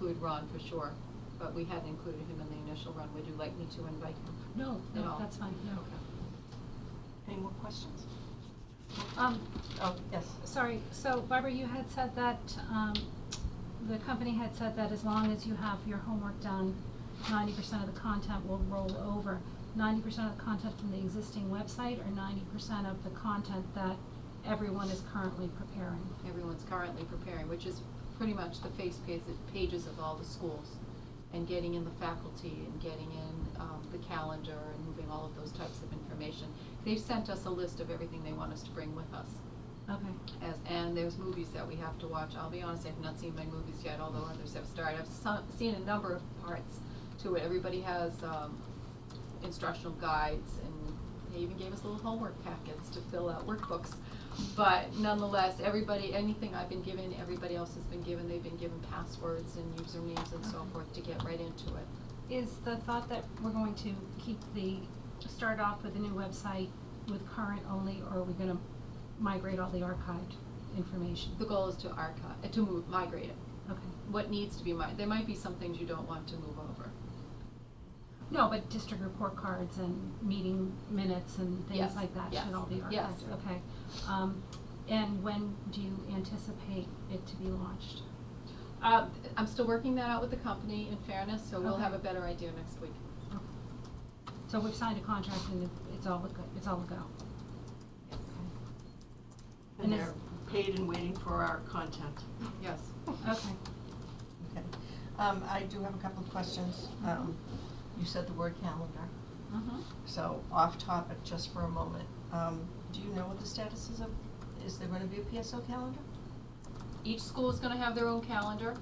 include Ron for sure, but we hadn't included him in the initial run. Would you like me to invite him? No, At no, all? that's fine, no. Any more questions? Um, Oh, yes. sorry, so Barbara, you had said that, um, the company had said that as long as you have your homework done, ninety percent of the content will roll over. Ninety percent of the content from the existing website or ninety percent of the content that everyone is currently preparing? Everyone's currently preparing, which is pretty much the face pages, pages of all the schools. And getting in the faculty and getting in, um, the calendar and moving all of those types of information. They've sent us a list of everything they want us to bring with us. Okay, As, and there's movies that we have to watch. I'll be honest, I've not seen my movies yet, although others have started. I've so- seen a number of parts to it. Everybody has um, instructional guides, and they even gave us little homework packets to fill out workbooks. But nonetheless, everybody, anything I've been given, everybody else has been given. They've been given passwords and usernames and so Okay. forth to get right into it. is the thought that we're going to keep the, start off with the new website with current only, or are we gonna migrate all the archived information? The goal is to archive, uh, to move, migrate it. Okay. What needs to be mi- there might be some things you don't want to move over. No, but district report cards and meeting minutes and Yes, things like that yes, should all be archived, okay. yes. Um, and when do you anticipate it to be launched? Uh, I'm still working that out with the company in fairness, so we'll Okay. have a better idea next week. Okay. So we've signed a contract and it- it's all, a go- it's all a go. And And it's- they're paid and waiting for our content. Yes. Okay, Okay. Um, I do have a couple of questions. Um, you said the word calendar, Mm-hmm. so off topic just for a moment. Um, do you know what the status is of, is there gonna be a PSO calendar? Each school is gonna have their own calendar.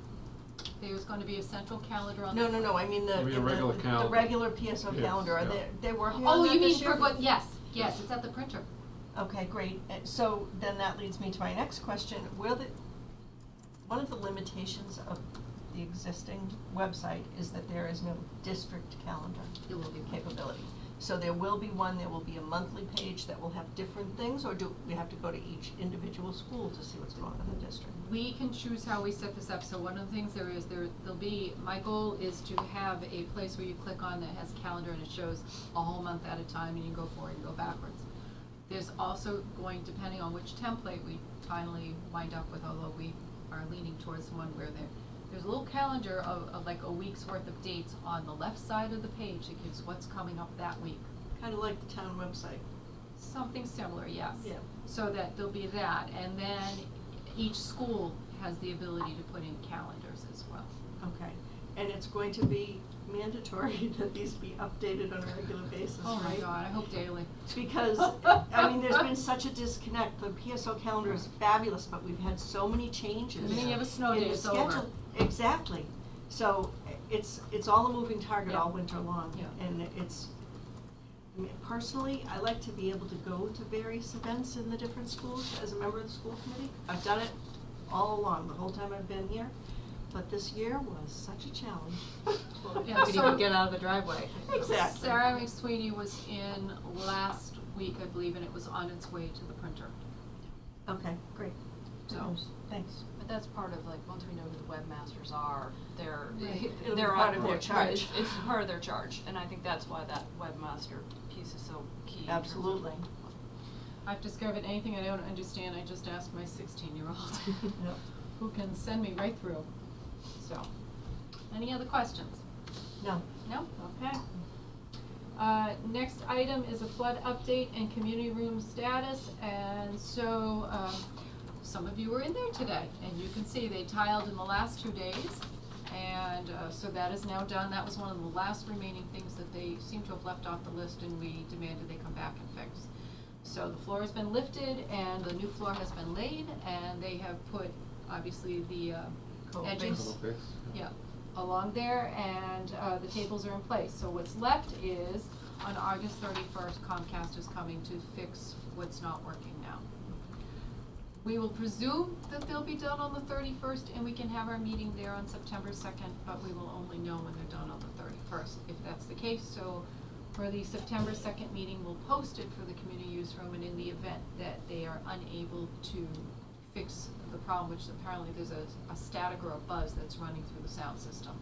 There's gonna be a central calendar on. No, the- no, no, I mean the, I mean a the- regular the calendar. regular PSO Yes, calendar, are yeah. they, they working on Oh, that you mean this year? for what, yes, yes, it's at the printer. Okay, great. Uh, So then that leads me to my next question. Will the, one of the limitations of the existing website is that there is no district calendar It will be. capability. So there will be one, there will be a monthly page that will have different things, or do we have to go to each individual school to see what's going on in the district? We can choose how we set this up, so one of the things there is, there, there'll be, my goal is to have a place where you click on that has calendar and it shows a whole month at a time and you go forward and go backwards. There's also going, depending on which template we finally wind up with, although we are leaning towards one where there, there's a little calendar of, of like a week's worth of dates on the left side of the page that gives what's coming up that week. Kind of like the town website. Something similar, yes. Yeah. So that there'll be that, and then each school has the ability to put in calendars as well. Okay. And it's going to be mandatory that these be updated on a regular basis, right? Oh my god, I hope daily. Because, I mean, there's been such a disconnect. The PSO calendar is fabulous, but we've had so many changes. And then you have a snow in day, the it's over. schedule. Exactly. So i- it's, it's all a moving target all Yeah. winter long. Yeah. And it's, I mean, personally, I like to be able to go to various events in the different schools as a member of the school committee. I've done it all along, the whole time I've been here, but this year was such a challenge. Yeah, so- of the driveway. Exactly. Sarah McSweeney was in last week, I believe, and it was on its way to the printer. Okay, great. So, Thanks. But that's part of like, once we know who the webmasters are, they're, Right. It'll be they're part on of their board. Right, it's- charge. It's part of their charge, and I think that's why that webmaster piece is so key in terms of- Absolutely. I've discovered anything I don't understand, I just ask my sixteen-year-old, Yep. who can send me right through. So, any other questions? No, No? Okay. Uh, next item is a flood update and community room status, and so, um, some of you were in there today, and you can see they tiled in the last two days. And, uh, so that is now done, that was one of the last remaining things that they seem to have left off the list, and we demanded they come back and fix. So the floor has been lifted, and the new floor has been laid, and they have put, obviously, the, uh, Coat edging. base. Little bits, Yeah, along there, and uh, the tables are in place. So what's left is, on August thirty-first, Comcast is coming to fix what's not working now. We will presume that they'll be done on the thirty-first, and we can have our meeting there on September second, but we will only know when they're done on the thirty-first, if that's the case. So for the September second meeting, we'll post it for the community use room, and in the event that they are unable to fix the problem, which apparently there's a, a static or a buzz that's running through the sound system.